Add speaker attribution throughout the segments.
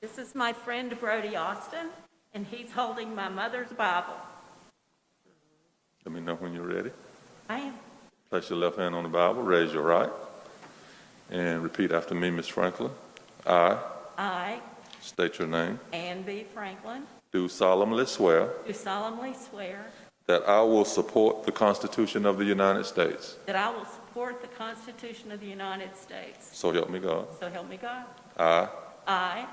Speaker 1: This is my friend Brody Austin, and he's holding my mother's Bible.
Speaker 2: Let me know when you're ready.
Speaker 1: I am.
Speaker 2: Place your left hand on the Bible, raise your right, and repeat after me, Ms. Franklin. I,
Speaker 1: I,
Speaker 2: state your name,
Speaker 1: Ann B. Franklin,
Speaker 2: do solemnly swear
Speaker 1: do solemnly swear
Speaker 2: that I will support the Constitution of the United States.
Speaker 1: that I will support the Constitution of the United States.
Speaker 2: So help me God.
Speaker 1: So help me God.
Speaker 2: I
Speaker 1: I,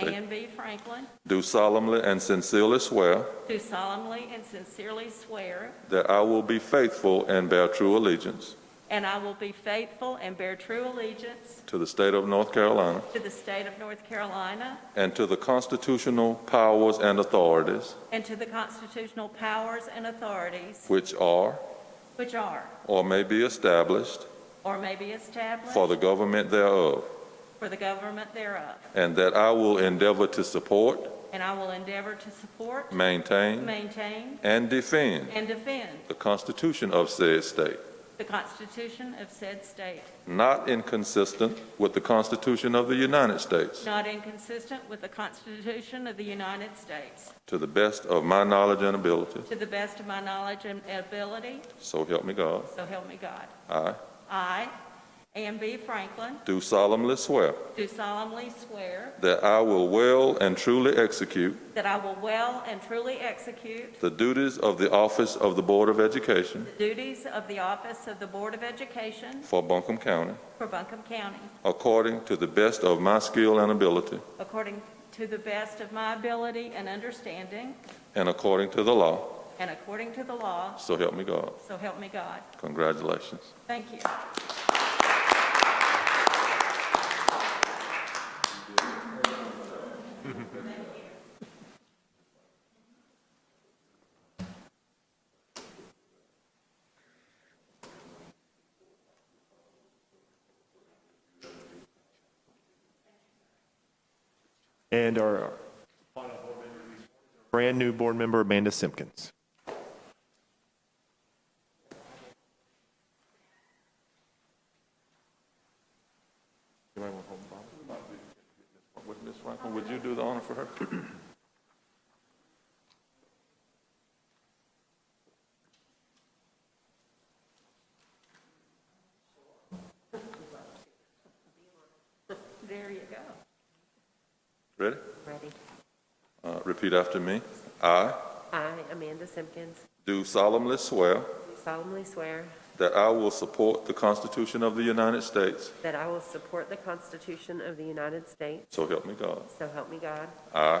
Speaker 2: State-
Speaker 1: Ann B. Franklin,
Speaker 2: do solemnly and sincerely swear
Speaker 1: do solemnly and sincerely swear
Speaker 2: that I will be faithful and bear true allegiance
Speaker 1: And I will be faithful and bear true allegiance
Speaker 2: to the state of North Carolina
Speaker 1: to the state of North Carolina
Speaker 2: and to the constitutional powers and authorities
Speaker 1: and to the constitutional powers and authorities
Speaker 2: which are
Speaker 1: which are
Speaker 2: or may be established
Speaker 1: or may be established
Speaker 2: for the government thereof,
Speaker 1: for the government thereof.
Speaker 2: and that I will endeavor to support,
Speaker 1: And I will endeavor to support,
Speaker 2: maintain,
Speaker 1: maintain,
Speaker 2: and defend
Speaker 1: and defend
Speaker 2: the Constitution of said state,
Speaker 1: the Constitution of said state,
Speaker 2: not inconsistent with the Constitution of the United States,
Speaker 1: not inconsistent with the Constitution of the United States,
Speaker 2: to the best of my knowledge and ability.
Speaker 1: to the best of my knowledge and ability,
Speaker 2: So help me God.
Speaker 1: so help me God.
Speaker 2: I
Speaker 1: I, Ann B. Franklin,
Speaker 2: do solemnly swear
Speaker 1: do solemnly swear
Speaker 2: that I will well and truly execute
Speaker 1: That I will well and truly execute
Speaker 2: the duties of the office of the Board of Education
Speaker 1: the duties of the office of the Board of Education
Speaker 2: for Buncombe County,
Speaker 1: for Buncombe County,
Speaker 2: according to the best of my skill and ability,
Speaker 1: according to the best of my ability and understanding,
Speaker 2: and according to the law.
Speaker 1: and according to the law,
Speaker 2: So help me God.
Speaker 1: so help me God.
Speaker 2: Congratulations.
Speaker 1: Thank you.
Speaker 3: And our brand-new board member, Amanda Simpkins.
Speaker 2: Would Ms. Franklin, would you do the honor for her?
Speaker 1: There you go.
Speaker 2: Ready?
Speaker 4: Ready.
Speaker 2: Uh, Repeat after me. I
Speaker 4: I, Amanda Simpkins,
Speaker 2: do solemnly swear
Speaker 4: solemnly swear
Speaker 2: that I will support the Constitution of the United States,
Speaker 4: that I will support the Constitution of the United States,
Speaker 2: so help me God.
Speaker 4: so help me God.
Speaker 2: I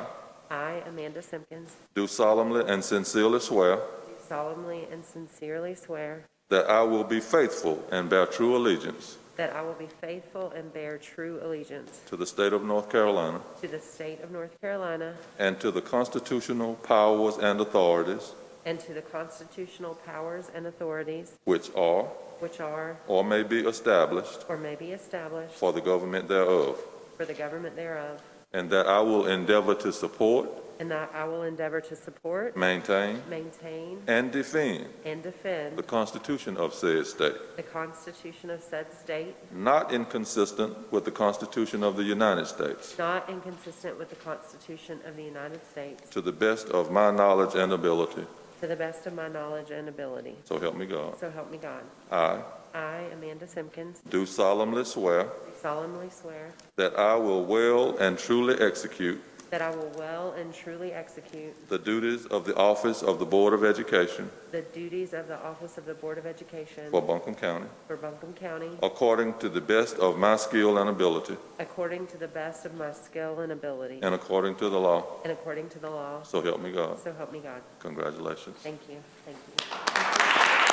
Speaker 4: I, Amanda Simpkins,
Speaker 2: do solemnly and sincerely swear
Speaker 4: do solemnly and sincerely swear
Speaker 2: that I will be faithful and bear true allegiance
Speaker 4: that I will be faithful and bear true allegiance
Speaker 2: to the state of North Carolina
Speaker 4: to the state of North Carolina
Speaker 2: and to the constitutional powers and authorities
Speaker 4: and to the constitutional powers and authorities
Speaker 2: which are
Speaker 4: which are
Speaker 2: or may be established
Speaker 4: or may be established
Speaker 2: for the government thereof,
Speaker 4: for the government thereof,
Speaker 2: and that I will endeavor to support,
Speaker 4: and that I will endeavor to support,
Speaker 2: maintain,
Speaker 4: maintain,
Speaker 2: and defend
Speaker 4: and defend
Speaker 2: the Constitution of said state,
Speaker 4: the Constitution of said state
Speaker 2: not inconsistent with the Constitution of the United States,
Speaker 4: Not inconsistent with the Constitution of the United States,
Speaker 2: to the best of my knowledge and ability.
Speaker 4: to the best of my knowledge and ability.
Speaker 2: So help me God.
Speaker 4: So help me God.
Speaker 2: I
Speaker 4: I, Amanda Simpkins,
Speaker 2: do solemnly swear
Speaker 4: solemnly swear
Speaker 2: that I will well and truly execute
Speaker 4: that I will well and truly execute
Speaker 2: the duties of the office of the Board of Education
Speaker 4: the duties of the Office of the Board of Education
Speaker 2: for Buncombe County,
Speaker 4: for Buncombe County
Speaker 2: according to the best of my skill and ability,
Speaker 4: according to the best of my skill and ability
Speaker 2: and according to the law.
Speaker 4: and according to the law.
Speaker 2: So help me God.
Speaker 4: So help me God.
Speaker 2: Congratulations.
Speaker 4: Thank you. Thank you.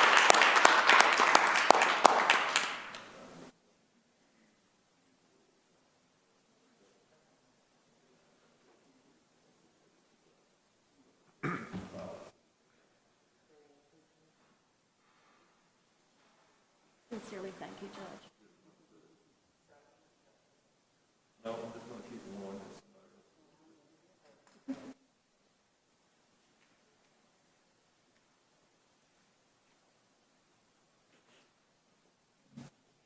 Speaker 1: Sincerely, thank you, Judge.